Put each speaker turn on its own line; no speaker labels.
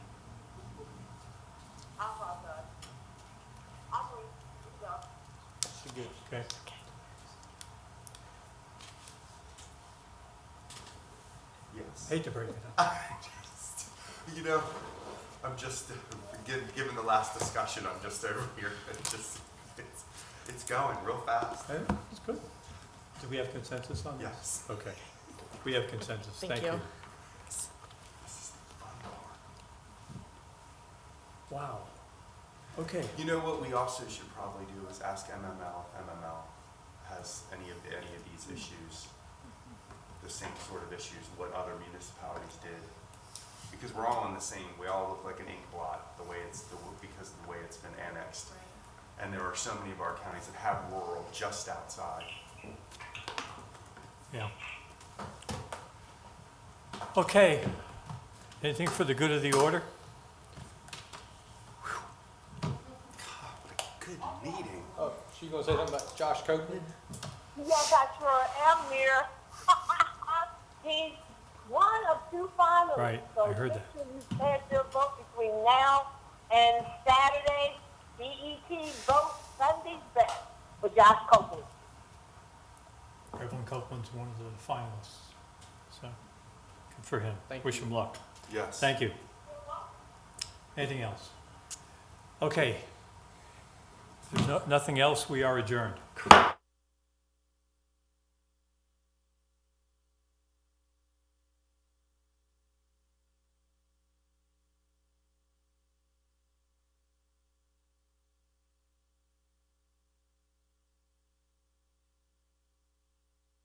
uh,
good, okay.
Yes.
Hate to break it up.
You know, I'm just, given, given the last discussion, I'm just over here, it's just, it's, it's going real fast.
Okay, That's good. Do we have consensus on this?
Yes.
Okay. We have consensus,
Thank
thank you.
you.
This is the fun part.
Wow. Okay,
You know what we also should probably do is ask MML, if MML has any of, any of these issues, the same sort of issues, what other municipalities did. Because we're all in the same, we all look like an ink blot, the way it's, the w- because of the way it's been annexed. And there are so many of our counties that have rural just outside.
yeah. Okay. Anything for the good of the order?
Good meeting.
Oh, she gonna say something about Josh Copeland?
Yes, I sure am here. He's one of two finalists.
Right, I heard that.
So make sure you cast your vote between now and Saturday. BET vote Sunday's best for Josh Copeland.
Evelyn Copeland's one of the finalists, so good for him.
Thank
Wish
you.
him luck.
Yes.
Thank you. Anything else? Okay. If there's no- nothing else, we are adjourned.